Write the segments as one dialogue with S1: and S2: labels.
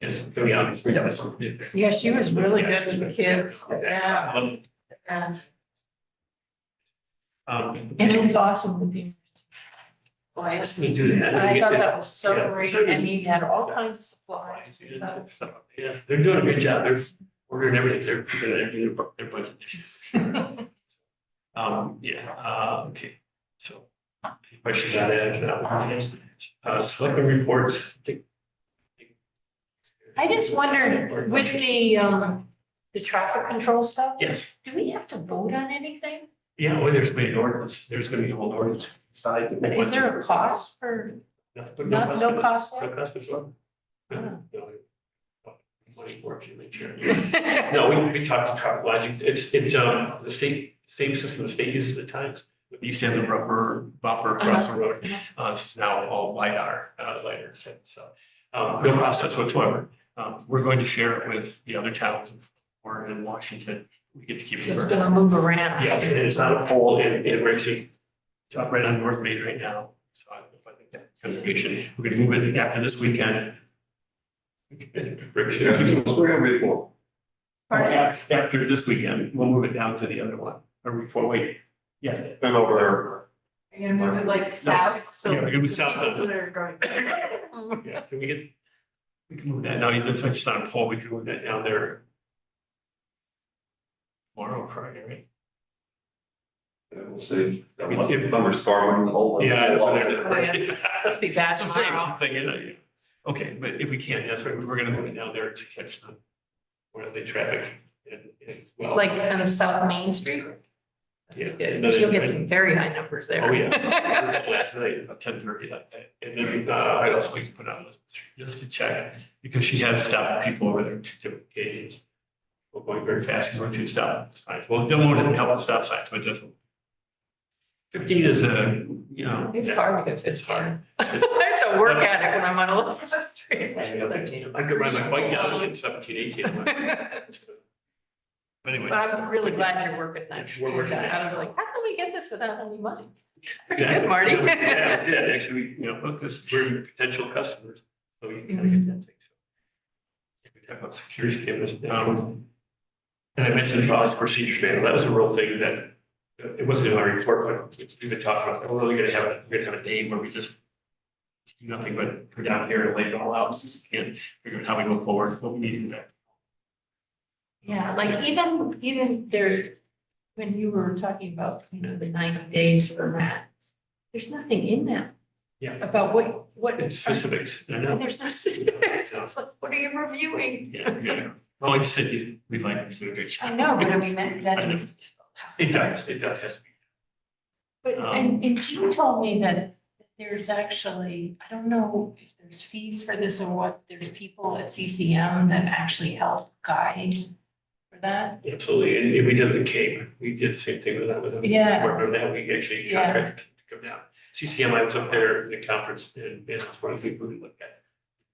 S1: Yes, to be honest.
S2: Yeah, she was really good with the kids, yeah, yeah.
S1: Um.
S2: and it was awesome with the. Well, I asked
S1: We
S2: me,
S1: do that.
S2: and I thought that was
S1: Yeah.
S2: so great, and he had all kinds of supplies and stuff.
S1: Yeah, they're doing a good job. They're ordering everything. They're, they're, they're, they're budget issues. Um, yeah, uh, okay, so. any Questions on that? Uh, selecting reports.
S2: I just wondered, with the, um, the traffic control stuff,
S1: Yes,
S2: do we have to vote on anything?
S1: yeah, well, there's been an ordinance. There's gonna be a whole ordinance side.
S2: But is there a cost for,
S1: No,
S2: No- no
S1: for this.
S2: cost for
S1: No
S2: it?
S1: cost for sure.
S2: Oh.
S1: Money for it, you make sure. No, we, we talked to traffic logic, it's, it's, um, the state, same system the state uses at times. We used to have the rubber bumper
S2: Uh-huh.
S1: across the road, uh, it's now all LiDAR, uh, LiDAR, so. Um, no process whatsoever, um, we're going to share it with the other towns of Oregon and Washington, we get to keep it.
S2: it's
S1: for-
S2: gonna move around?
S1: yeah, and it's not a pole in, in Ramsey, it's up right on North Main right now, so I if I think that contribution, we could move it after this weekend. Ramsey,
S3: Yeah,
S1: after-
S3: it's where we for.
S2: Pardon?
S1: After this weekend, we'll move it down to the other one, or before we, yeah,
S3: Been over there.
S2: Are you gonna move it like south, so?
S1: yeah, we're gonna be south of-
S2: People that are going.
S1: yeah, can we get? We can move that, now, it looks like it's not a pole, we can move that down there. Tomorrow, Friday, right?
S3: Yeah, We'll see. That one Thunderstorm and the whole.
S1: Yeah, that's what they're.
S2: Oh, yeah. Supposed to be bad
S1: It's the same
S2: tomorrow.
S1: Thing, you know, you- uh, okay, but if we can, that's right, we're gonna move it down there to catch the, where the traffic and, and well.
S2: Like on the South Main Street?
S1: Yeah.
S2: Because you'll get some very high numbers there.
S1: Oh, yeah. Last night, about ten thirty, like that, and then, uh, I also like to put on, just to check, because she had stopped people over there two different occasions. We're going very fast, going through stop signs, well, don't want to help the stop signs, but just. Fifteen is a, you know.
S2: It's
S1: yeah.
S2: hard to go
S1: It's hard.
S2: fifteen. There's a work at it when I'm on Elizabeth Street.
S1: I could ride my bike down in seventeen, eighteen. But anyway.
S2: But I'm really glad you're working that.
S1: We're working
S2: I
S1: that.
S2: was like, how can we get this without any money? Pretty
S1: Exactly.
S2: good, Marty.
S1: Yeah, we- Yeah, we did, actually, we, you know, because we're potential customers, so you kind of get that thing. We talk about security cameras, um, and I mentioned the policy procedures manual, that was a real thing that, it wasn't in our report, but we've been talking about, oh, we're gonna have, a- we're gonna have a day where we just do nothing but go down here and lay it all out, and figure out how we go forward, what we need to do.
S2: Yeah, like even, even there, when you were talking about, you know, the ninety days for that, there's nothing in that.
S1: Yeah.
S2: About what, what.
S1: It's specifics, I know.
S2: There's no specifics. It's like, what are you reviewing?
S1: Yeah, yeah. Well, like you said, you, we like to do a good job.
S2: I know, but I mean, that,
S1: I
S2: that
S1: know.
S2: needs to be spelled out.
S1: It does, Um, it does, yes.
S2: But, and, and Jim told me that there's actually, I don't know if there's fees for this or what, there's people at CCM that actually help guide for that.
S1: Absolutely, and and we did it in Cape, we did the same thing with that, with them.
S2: Yeah.
S1: Remember that, we actually
S2: Yeah.
S1: contracted to come down. CCMI was up there in the conference and and that's one of the things we looked at.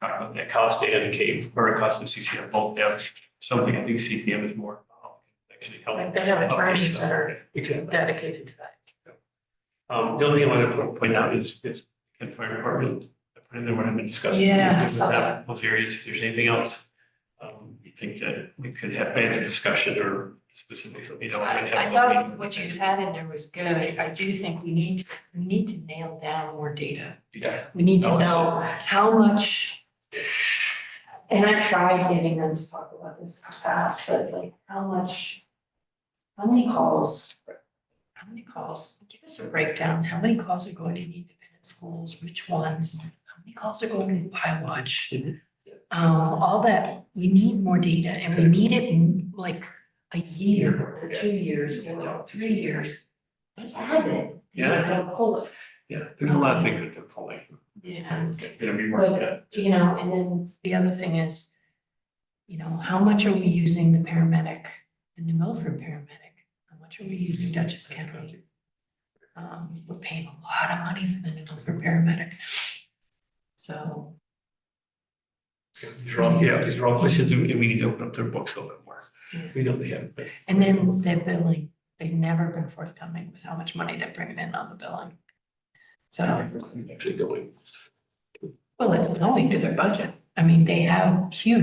S1: Talked about that cost and Cape, or cost and CCM both have something, I think CCM is more involved, actually helping.
S2: Like they have attorneys that are
S1: Exactly.
S2: dedicated to that.
S1: Um, the only thing I want to po- point out is, is Kent Fire Department, I put in there what I've been discussing.
S2: Yeah, I
S1: with
S2: saw
S1: that,
S2: that.
S1: Those areas, if there's anything else, um, you think that we could have had a discussion or specifically, you know.
S2: I,
S1: we could have
S2: I
S1: a
S2: thought
S1: meeting.
S2: what you had in there was good. I do think we need, to we need to nail down more data.
S1: Yeah,
S2: We need to
S1: Oh, I see.
S2: know how much. And I tried getting them to talk about this in the past, but like, how much? How many calls? How many calls? Give us a breakdown. How many calls are going to the independent schools? Which ones? How many calls are going to iWatch?
S1: Mhm.
S2: Um, all that, we need more data and we need it in like a year, or two years, or three years. They have it. They just don't pull it.
S1: yeah, there's a lot of things that they're pulling,
S2: Yeah.
S1: gonna be more, yeah.
S2: But, you know, and then the other thing is, you know, how much are we using the paramedic, the New Milford paramedic? How much are we using Dutchess County? Um, we're paying a lot of money for the New Milford paramedic. So,
S1: These are all, yeah, these are all questions, and we need to open up their books a little bit more. We know they have, but
S2: and then they're billing, they've never been forthcoming with how much money they're bringing in on the billing. So,
S1: actually going.
S2: well, it's going to their budget. I mean, they have huge